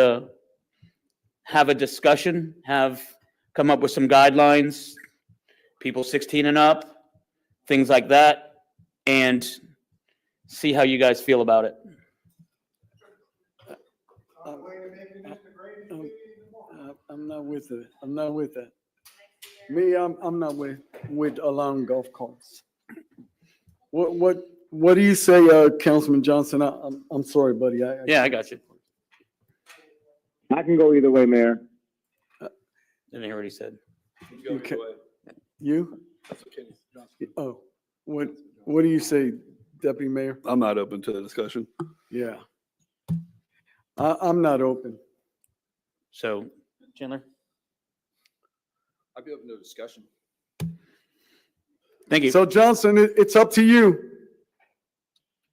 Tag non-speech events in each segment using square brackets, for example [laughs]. to have a discussion, have, come up with some guidelines, people 16 and up, things like that, and see how you guys feel about it. Um, um, I- Uh, I'm not with it. I'm not with that. Me, I'm, I'm not with, with allowing golf carts. What, what, what do you say, uh, Councilman Johnson? I, I'm, I'm sorry, buddy. I, I- Yeah, I got you. I can go either way, Mayor. Didn't hear what he said. Okay. You? Oh, what, what do you say, Deputy Mayor? I'm not open to the discussion. Yeah. I, I'm not open. So Chandler, I'd be open to discussion. thank you. So Johnson, it, it's up to you.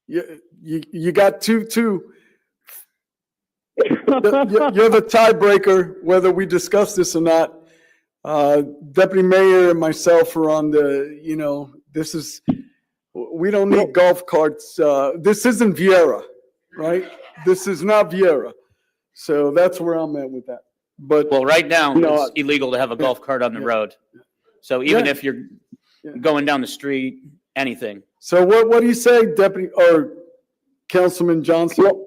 You, you, you got two, two. You're you're the tiebreaker, whether we discuss this or not. Uh, Deputy Mayor and myself are on the, you know, this is, we don't need golf carts. Uh, this isn't Viera, right? This is not Viera. So that's where I'm at with that. But Well, right now, No, it's illegal to have a golf cart on the yeah. road. So even Yeah. if you're Yeah. going down the street, anything. so what, what do you say, Deputy, or Councilman Johnson?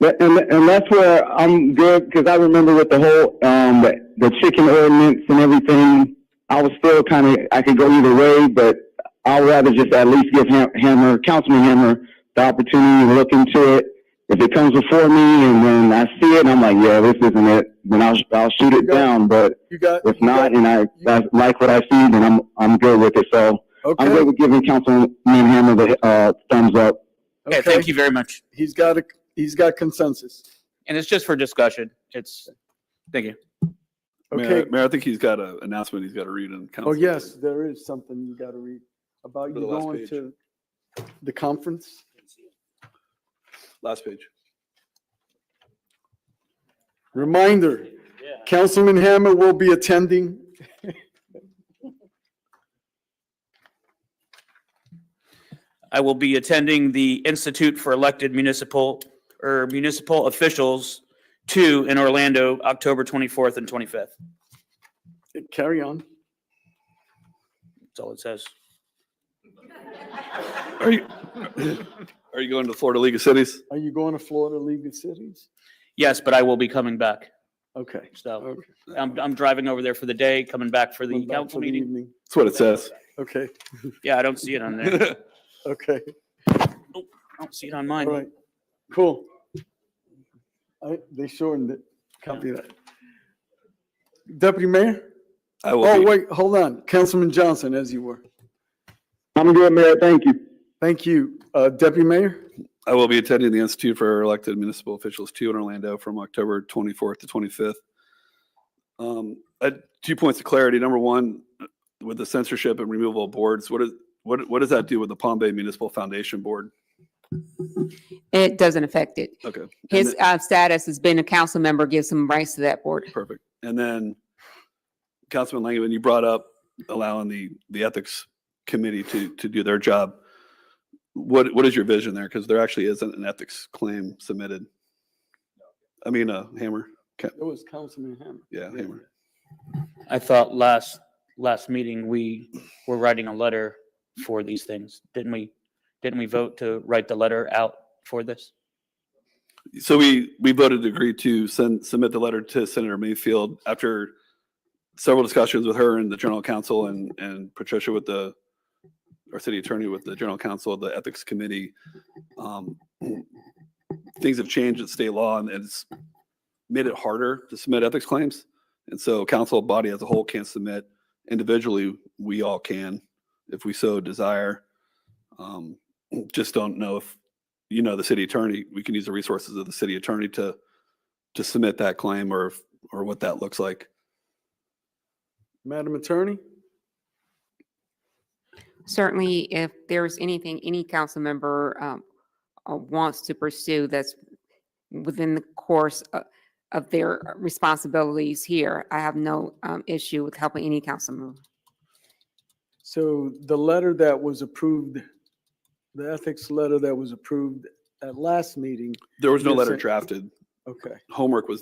But- And, and that's where I'm good, because I remember with the whole, um, the, the chicken ordinance and everything, I was still kind of, I could go either way, but I'd rather just at least give Ham- Hammer, Councilman Hammer, the opportunity to look into it. If it comes before me and then I see it, I'm like, yeah, this isn't it, then I'll, I'll shoot it down, but You got? if not, and I, I like what I see, then I'm, I'm good with it, so I'm Okay. good with giving Councilman Hammer the, uh, thumbs up. Okay, thank you very much. He's got a, he's got consensus. And it's just for discussion. It's, thank you. Okay. Mayor, Mayor, I think he's got an announcement he's got to read in council. Oh, yes, there is something you gotta read about you For the last going page. to the conference. Last page. Reminder, Councilman Hammer will be attending. I will be attending the Institute for Elected Municipal or Municipal Officials two in Orlando, October twenty-fourth and twenty-fifth. Eh, Carry on. That's all it says. Are you, [laughs] are you going to the Florida League of Cities? Are you going to Florida League of Cities? Yes, but I will be coming back. Okay. So okay. I'm, I'm driving over there for the day, coming back for the Went back for council the meeting. evening. That's what it says. Okay, Yeah, I don't see it on [laughs] there. I okay, don't see it on all mine. right, cool. I, they shortened it. Copy that. Deputy Mayor? [laughs] I will Oh, be- wait, hold on. Councilman Johnson, as you were. I'm good, Mayor, thank you. Thank you. Uh, Deputy Mayor? I will be attending the Institute for Elected Municipal Officials two in Orlando from October twenty-fourth to twenty-fifth. Um, uh, two points of clarity. Number one, with the censorship and removal of boards, what is, what, what does that do with the Palm Bay Municipal Foundation Board? It doesn't affect it. Okay. and His then- uh, status has been a council member, gives him rights to that board. Perfect. And then Councilman Langivan, you brought up allowing the, the ethics committee to, to do their job. What, what is your vision there? Because there actually isn't an ethics claim submitted. I mean, a hammer, It was Councilman Hammer. yeah, hammer. I thought last, last meeting, we were writing a letter for these things. Didn't we, didn't we vote to write the letter out for this? So we, we voted to agree to send, submit the letter to Senator Mayfield after several discussions with her and the general counsel and, and Patricia with the, our city attorney with the general counsel, the ethics committee. Um, Things have changed at state law and it's made it harder to submit ethics claims. And so council body as a whole can't submit. Individually, we all can if we so desire. Um, Just don't know if you know, the city attorney, we can use the resources of the city attorney to, to submit that claim or, if- or what that looks like. Madam Attorney? Certainly, if there's anything any council member um, uh, wants to pursue that's within the course o- of their responsibilities here, I have no um, issue with helping any council member. So the letter that was approved, the ethics letter that was approved at last meeting, There was no Yes, letter sir. drafted. Okay. homework was